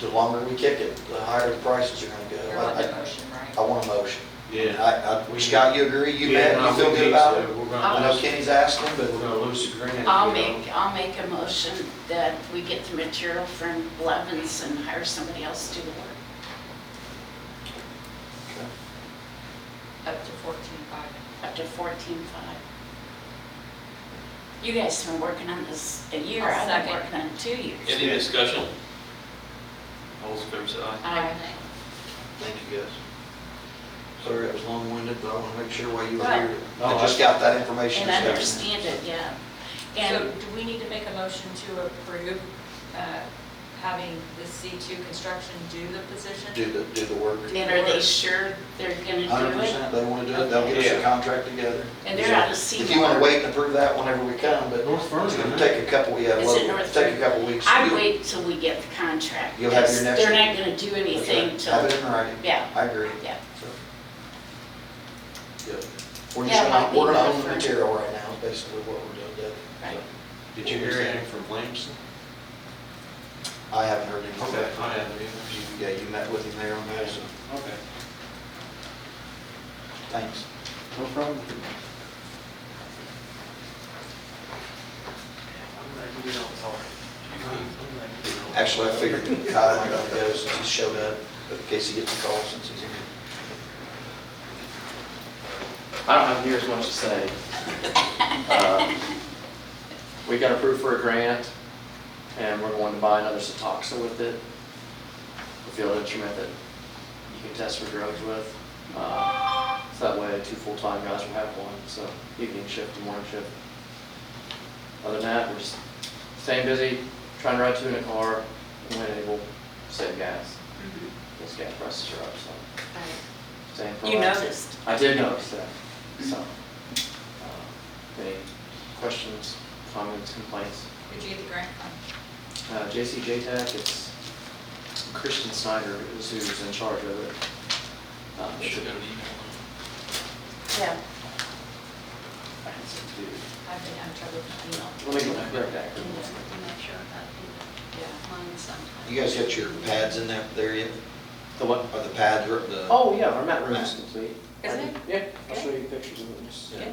the longer we kick it, the higher the prices are gonna You're go. on the I- motion, I, I right? want a motion. Yeah. I, I, Scott, you agree, you Yeah, bet, no, you feel we good need about to. it? We're I gonna know lose, we're Kenny's asking, but gonna lose the grant. I'll you know. make, I'll make a motion that we get the material from Blevins and hire somebody else to do the work. Up to fourteen five. Up to fourteen-five. You guys have been working on this a year, I'll I've second. been working on it two years. Any discussion? All those in favor say aye. I, thank you guys. Sorry, it was long-winded, but I wanna make sure why you were Right. here. No, I just I- got that information. and I understand it, yeah. So And do we need to make a motion to approve uh, having the C2 construction do the position? Do the, do the work. and are they sure they're gonna Hundred do it? percent, they wanna do it, they'll get us a contract together. And they're out of If you wanna Seymour. wait and approve that whenever we come, but North Vernon, it's gonna huh? take a couple, yeah, Is it well, North take a Vernon? couple weeks. I'd wait till we get the contract. You'll have your because next- They're not gonna do anything Okay, Have till, it in writing. yeah. I agree. Yeah. So. Good. We're Yeah, just might gonna, be we're gonna own the different. material right now, is basically what we're doing, Deb. Right. Did you hear anything from Williamson? So, I haven't heard anything. Okay, I haven't either. You- Yeah, you met with him there on that, so, Okay. thanks. No problem. Actually, I figured Kyle might not go since he showed up, but in case he gets a call since he's here. I don't have near as much to say. Uh, We got approved for a grant, and we're going to buy another Setoxa with it, a field instrument that you can test for drugs with. Uh, So that way, two full-time guys will have one, so evening shift and morning shift. Other than that, we're just staying busy, trying to ride two in a car, and when able, save gas. Those gas prices are up, so staying proactive. You noticed. I did notice that, so. uh, Any questions, comments, complaints? Would you get the grant from? Uh, JCJ Tech, it's Christian Snyder is who's in charge of it. Um, You should I have an email. Yeah. can send it to I've been having trouble with email. you. Let me go back, right back. You guys got your pads in there, there yet? The what? Are the pads, or the? Oh, yeah, our mat room is complete. Is it? Yeah, I'll show you pictures of it. just- Yeah.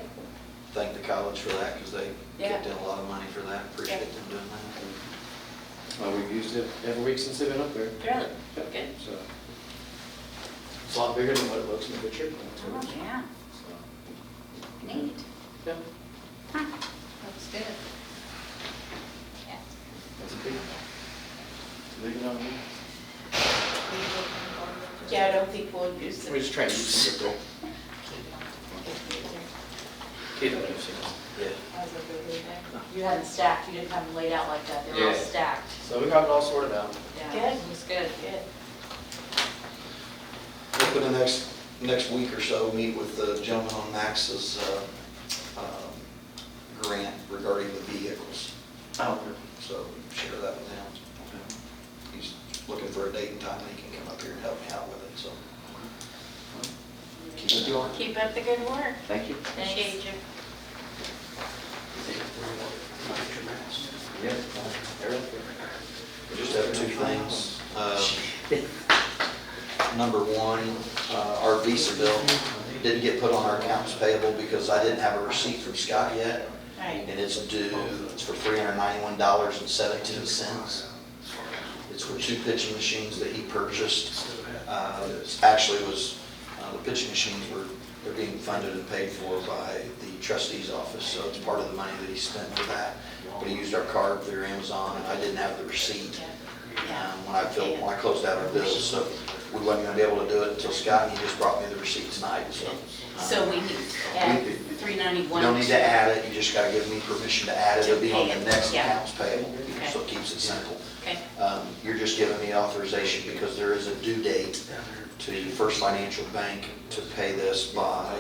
Thank the college for that, because they Yeah. kicked in a lot of money for that, appreciate them doing that. Well, we've used it every week since they've been up there, Really? Good. so. It's a lot bigger than what it looks in the picture. Oh, yeah. So, Neat. Yeah, Looks good. Yeah. that's a big, it's a big amount of money. Yeah, I don't think we'll use We're it. just trying to use it. Kate, I don't see it. Yeah. You had them stacked, you didn't have them laid out like that, they were all Yeah. stacked. So we got it all sorted out. Yeah, Good. it was good. Good. Hoping the next, next week or so, meet with the gentleman on Max's uh, um, grant regarding the vehicles. Oh. So share that with him. He's looking for a date and time that he can come up here and help me out with it, so. Keep it going. Keep up the good work. Thank you. Appreciate you. Yep. We Just have two things. Um, Number one, uh, our Visa bill didn't get put on our accounts payable because I didn't have a receipt from Scott yet. Right. And it's due, it's for three hundred ninety-one dollars and seventeen cents. It's for two pitching machines that he purchased. Uh, it's Actually was, uh, the pitching machines were, they're being funded and paid for by the trustee's office, so it's part of the money that he spent for that. But he used our card through Amazon, and I didn't have the receipt Yeah. um, when I filled, when I closed out our bills, so we wasn't gonna be able to do it until Scott, he just brought me the receipt tonight, so. uh, So we need to add three you ninety-one. don't need to add it, you just gotta give me permission to add it, it'll be on the next Yeah. accounts payable, Okay. so it keeps it simple. Okay. Um, You're just giving me authorization because there is a due date to First Financial Bank to pay this by,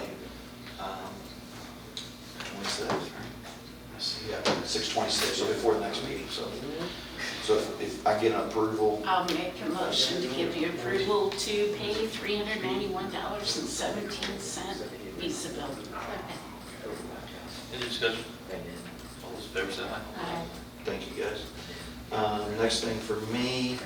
um, what's that? Let's see, Yeah, six twenty-six, so before the next meeting, so. So if- if I get an approval, I'll make a motion to give you approval to pay three hundred ninety-one dollars and seventeen cent Visa bill. Any discussion? All those in favor say aye. Aye. Thank you, guys. Um, Next Uh, thing for me,